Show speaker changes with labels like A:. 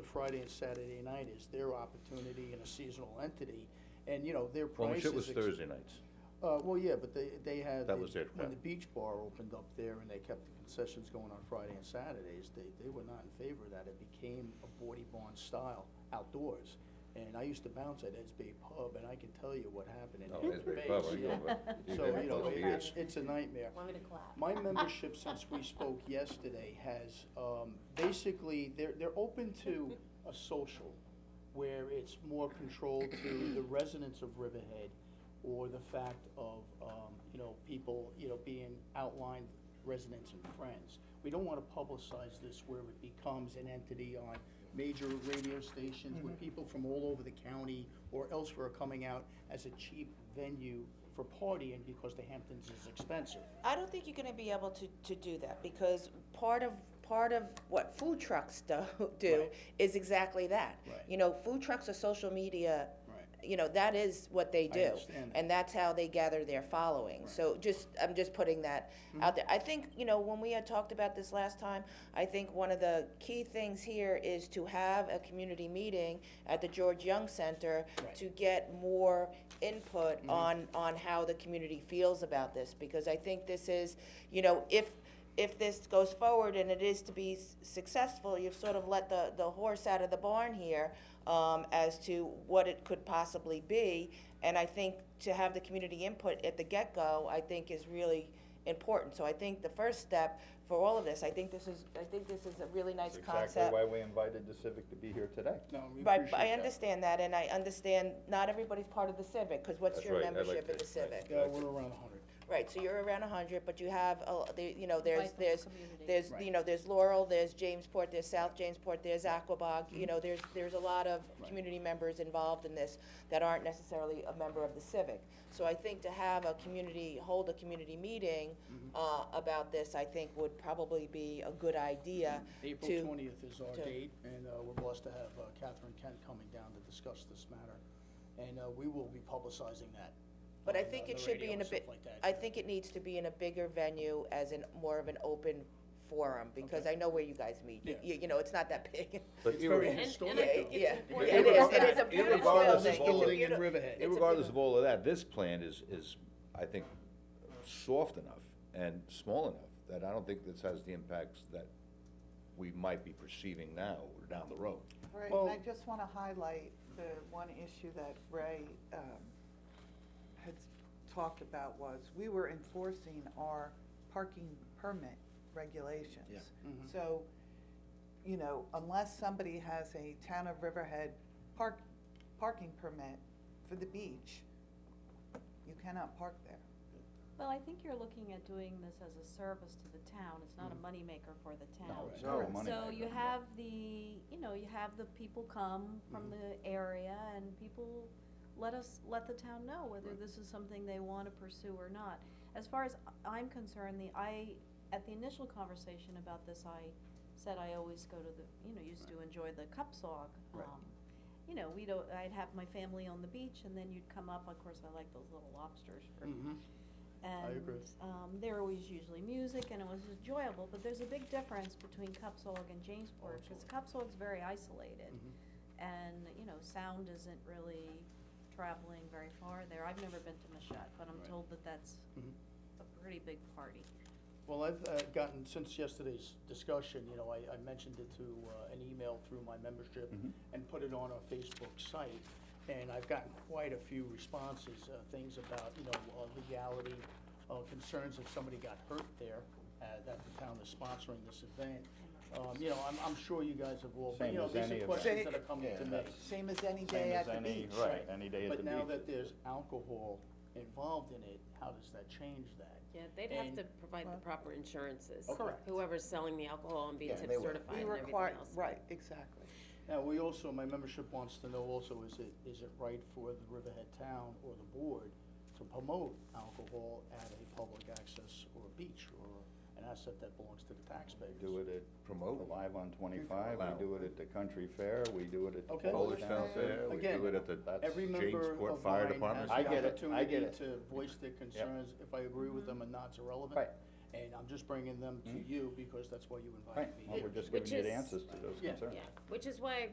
A: Friday and Saturday night is their opportunity and a seasonal entity, and, you know, their
B: Well, my
A: prices.
B: shit was
A: ex-
B: Thursday nights.
A: Uh, well, yeah, but they, they had.
B: That
A: the-
B: was it,
A: When
B: yeah.
A: the beach bar opened up there and they kept the concessions going on Friday and Saturdays, they, they were not in favor of that. It became a Bordy Barn style outdoors. And I used to bounce at Ed's Bay Pub, and I can tell you what happened
B: No,
A: in
B: it's
A: Ed's
B: very
A: Bay.
B: clever. I
A: yeah.
B: go back- you've
A: So,
B: been
A: you
B: there
A: know,
B: for
A: it-
B: years.
A: it's, it's a nightmare.
C: Want me to clap?
A: My membership, since we spoke yesterday, has, um, basically, they're, they're open to a social where it's more controlled to the residents of Riverhead or the fact of, um, you know, people, you know, being outlined residents and friends. We don't wanna publicize this where it becomes an entity on major radio stations where people from all over the county or elsewhere are coming out as a cheap venue for partying because the Hamptons is expensive.
D: I don't think you're gonna be able to, to do that, because part of, part of what food trucks do, do
A: Right.
D: is exactly that.
A: Right.
D: You know, food trucks are social media,
A: Right.
D: you know, that is what they
A: I
D: do.
A: understand that.
D: And that's how they gather their following, so just, I'm just putting that
A: Mm-hmm.
D: out there. I think, you know, when we had talked about this last time, I think one of the key things here is to have a community meeting at the George Young Center
A: Right. Mm-hmm.
D: to get more input on, on how the community feels about this, because I think this is, you know, if, if this goes forward and it is to be s- successful, you've sort of let the, the horse out of the barn here, um, as to what it could possibly be, and I think to have the community input at the get-go, I think is really important, so I think the first step for all of this, I think this is, I think this is a really nice concept.
B: Exactly why we invited the Civic to be here today.
A: No, we
D: Right,
A: appreciate
D: but I
A: that.
D: understand that, and I understand not everybody's part of the civic, because what's
B: That's
D: your
B: right, I like
D: membership in
B: that,
D: the civic?
A: Yeah, Uh, we're around a hundred.
D: Right, so you're around hundred, but you have, a- the- you know, there's,
C: Vibrant
D: there's,
C: community.
D: there's,
A: Right.
D: you know, there's Laurel, there's Jamesport, there's South Jamesport, there's Aquabog, you know, there's, there's a lot of
A: Mm-hmm. Right.
D: community members involved in this that aren't necessarily a member of the civic. So I think to have a community, hold a community meeting,
A: Mm-hmm.
D: uh, about this, I think would probably be a good idea
A: April
D: to-
A: twentieth is our
D: to-
A: date, and uh, we're blessed to have uh, Catherine Kent coming down to discuss this matter. And uh, we will be publicizing that.
D: But I
A: on, uh,
D: think it
A: the
D: should
A: radio
D: be in a
A: and stuff
D: bit,
A: like that,
D: I
A: yeah.
D: think it needs to be in a bigger venue as in more of an open forum, because I know where you guys meet. You,
A: Yeah.
D: you- you know, it's not that big.
B: But e-
A: It's very
B: irre-
C: And-
A: historic.
C: and I think
A: though.
D: Yeah,
C: it's
D: yeah,
C: important.
D: it is, it
B: Irregardless-
D: is a beautiful
B: irregardless of
D: building. It's a
B: building
A: in
D: beauti-
A: Riverhead.
D: it's a
B: Regardless of
D: beautiful-
B: all of that, this plan is, is, I think, soft enough and small enough that I don't think this has the impacts that we might be perceiving now or down the road.
E: Right,
A: Well-
E: and I just want to highlight the one issue that Ray um, had talked about was, we were enforcing our parking permit regulations.
A: Yeah.
F: Mm-hmm.
A: Mhm.
E: So, you know, unless somebody has a town of Riverhead park, parking permit for the beach, you cannot park there.
C: Well, I think you're looking at doing this as a service to the town, it's not a moneymaker for the town.
A: No, it's
B: not a
E: Correct.
B: money-
C: So you
B: moneymaker.
C: have the, you know, you have the people come from
A: Mm-hmm.
C: the area and people let us, let the town know whether
A: Right.
C: this is something they wanna pursue or not. As far as I'm concerned, the, I, at the initial conversation about this, I said I always go to the, you know, used to enjoy the cup sog.
A: Right.
C: um, You know, we don't, I'd have my family on the beach and then you'd come up, of course, I like those little lobsters for
A: Mhm. I
C: and,
A: agree.
C: um, there was usually music and it was enjoyable, but there's a big difference between Cupsog and
A: Oh,
C: Jamesport, because Cupsog's very isolated.
A: mm-hmm.
C: And, you know, sound isn't really traveling very far there. I've never been to Mashat, but I'm
A: Right.
C: told that that's
A: Mhm.
C: a pretty big party.
A: Well, I've uh, gotten, since yesterday's discussion, you know, I, I mentioned it to uh, an email through my membership
F: Mm-hmm.
A: and put it on our Facebook site. And I've gotten quite a few responses, uh, things about, you know, uh, legality, uh, concerns if somebody got hurt there, uh, that the town is sponsoring this event. Um, You know, I'm, I'm sure you guys have all,
F: Same
A: you know,
F: as
A: these
F: any
A: are
F: event.
A: questions that are coming
F: Yeah,
A: to me.
F: that's-
E: Same as any
F: Same
E: day
F: as
E: at the
F: any-
E: beach.
F: right. any day at the
A: But now
F: beach.
A: that there's alcohol involved in it, how does that change that?
G: Yeah, they'd have
A: And-
G: to provide the proper insurances.
A: Oh, correct.
G: Whoever's selling the alcohol and being
F: Yeah,
G: tip
F: they would.
G: certified
E: We
G: and everything
E: require,
G: else.
E: right, exactly.
A: Now, we also, my membership wants to know also, is it, is it right for the Riverhead Town or the board to promote alcohol at a public access or a beach or an asset that belongs to the taxpayers?
F: Do it at.
B: Promote.
F: Alive on twenty-five,
B: Allow.
F: we do it at the Country Fair, we do it at the
A: Okay.
B: Polish
F: Polish
B: Town
F: Town
B: Fair, we do it at the
F: That's-
A: Every member
B: Jamesport
A: of
B: Fire
A: mine has
B: Department.
A: the
F: I get it, I
A: opportunity
F: get it.
A: to voice their concerns, if I agree with them or not's irrelevant.
F: Right. Mm-hmm.
A: And I'm just bringing them to you because that's why you
F: Right,
A: invited me
F: well,
A: here.
F: we're just
G: Which
F: giving you the
G: is-
F: answers to those
A: Yeah.
F: concerns.
G: Yeah, which is why I